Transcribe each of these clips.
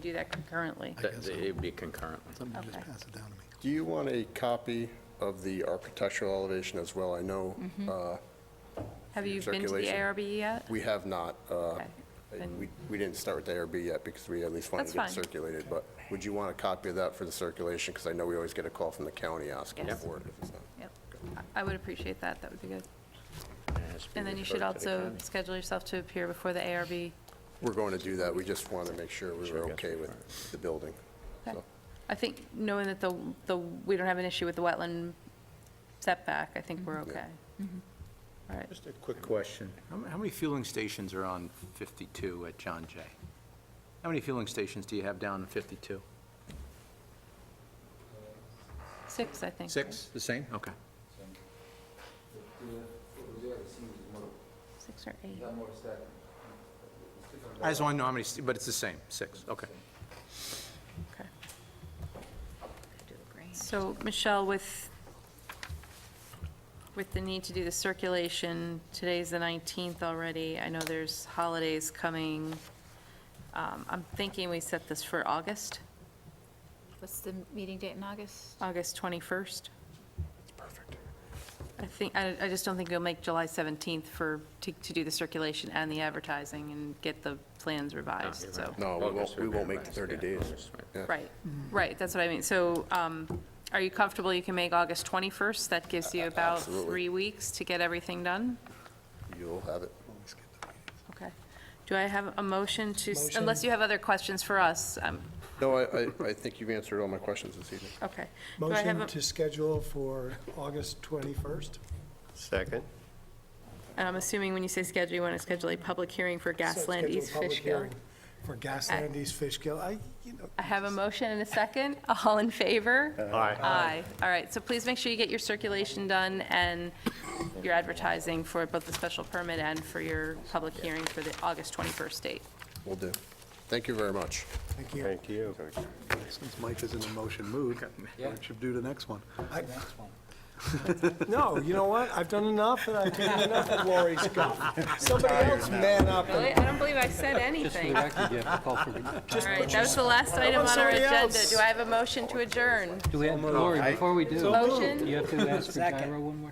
do that concurrently? I guess so. It'd be concurrently. Somebody just Okay. pass it down to me. Do you want a copy of the architectural elevation as well? I know Mm-hmm. uh, Have you been to the Circulation. ARB E yet? we have not, uh, Okay. Then- we we didn't start with the ARB yet because we at least wanted That's to get it fine. circulated, but would you want a copy of that for the circulation? Because I know we always get a call from the county asking Yes. for it. if it's not- Yep. I I would appreciate that, that would be good. It has to be And then you should referred to the also county. schedule yourself to appear before the ARB. We're going to do that, we just wanted to make sure we Sure, were yes, okay with right. the building. Okay. So- I think, knowing that the, the, we don't have an issue with the wetland setback, I think we're okay. All right, Just a quick question. How m- How many fueling stations are on 52 at John Jay? How many fueling stations do you have down in 52? six, I think. Six, the same? Okay. right? Six or eight. I just want to know how many, st- but it's the same, six, okay. Okay. So, Michelle, with, with the need to do the circulation, today's the 19th already, I know there's holidays coming. Um, I'm thinking we set this for August, What's the meeting date in August? August 21st. Perfect. I think, I, I just don't think it'll make July 17th for, to, to do the circulation and the advertising and get the plans Ah, revised, you're so. right. No, we August won't, would we be won't make the nice, 30 yeah, days. August, right. Yeah. Right, right, that's what I mean. So um, are you comfortable you can make August 21st? That gives you about absolutely. three weeks to get everything done? You'll have it. Okay. Do I have a motion to, s- unless you have other questions for us? um, No, I, I- I think you've answered all my questions this evening. Okay. Do I have Motion a- to schedule for August 21st? Second. And I'm assuming when you say schedule, you want to schedule a public hearing for So Gasland schedule a East public Fishkill. hearing For Gasland East Fishkill, I, you know. I have a motion and a second. All in favor? Aye. Aye. All right, so please make sure you get your circulation done and your advertising for both the special permit and for your public hearing for the August 21st date. Will do. Thank you very much. Thank you. Thank you. Since Mike is in a motion mood, we should do the next one. I- No, you know what? I've done enough, and I've done enough of Lori's guff. Somebody else man up. and- Really? I don't believe I said anything. All right, that was the last item on our somebody agenda. else. Do I have a motion to adjourn? Do we have, Lori, before we do, Motion? you have to ask for gyro one more?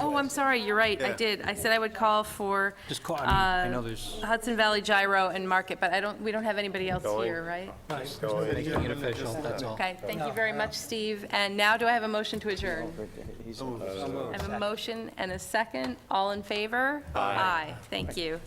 Oh, I'm sorry, you're right, I did. I said I would call for Just call, I mean, I Uh, know there's, Hudson Valley Gyro and Market, but I don't, we don't have anybody else Going. here, right? making it official, that's all. Okay, thank you very much, Steve. And now do I have a motion to adjourn? I have a motion and a second. All in favor? Aye. Thank you.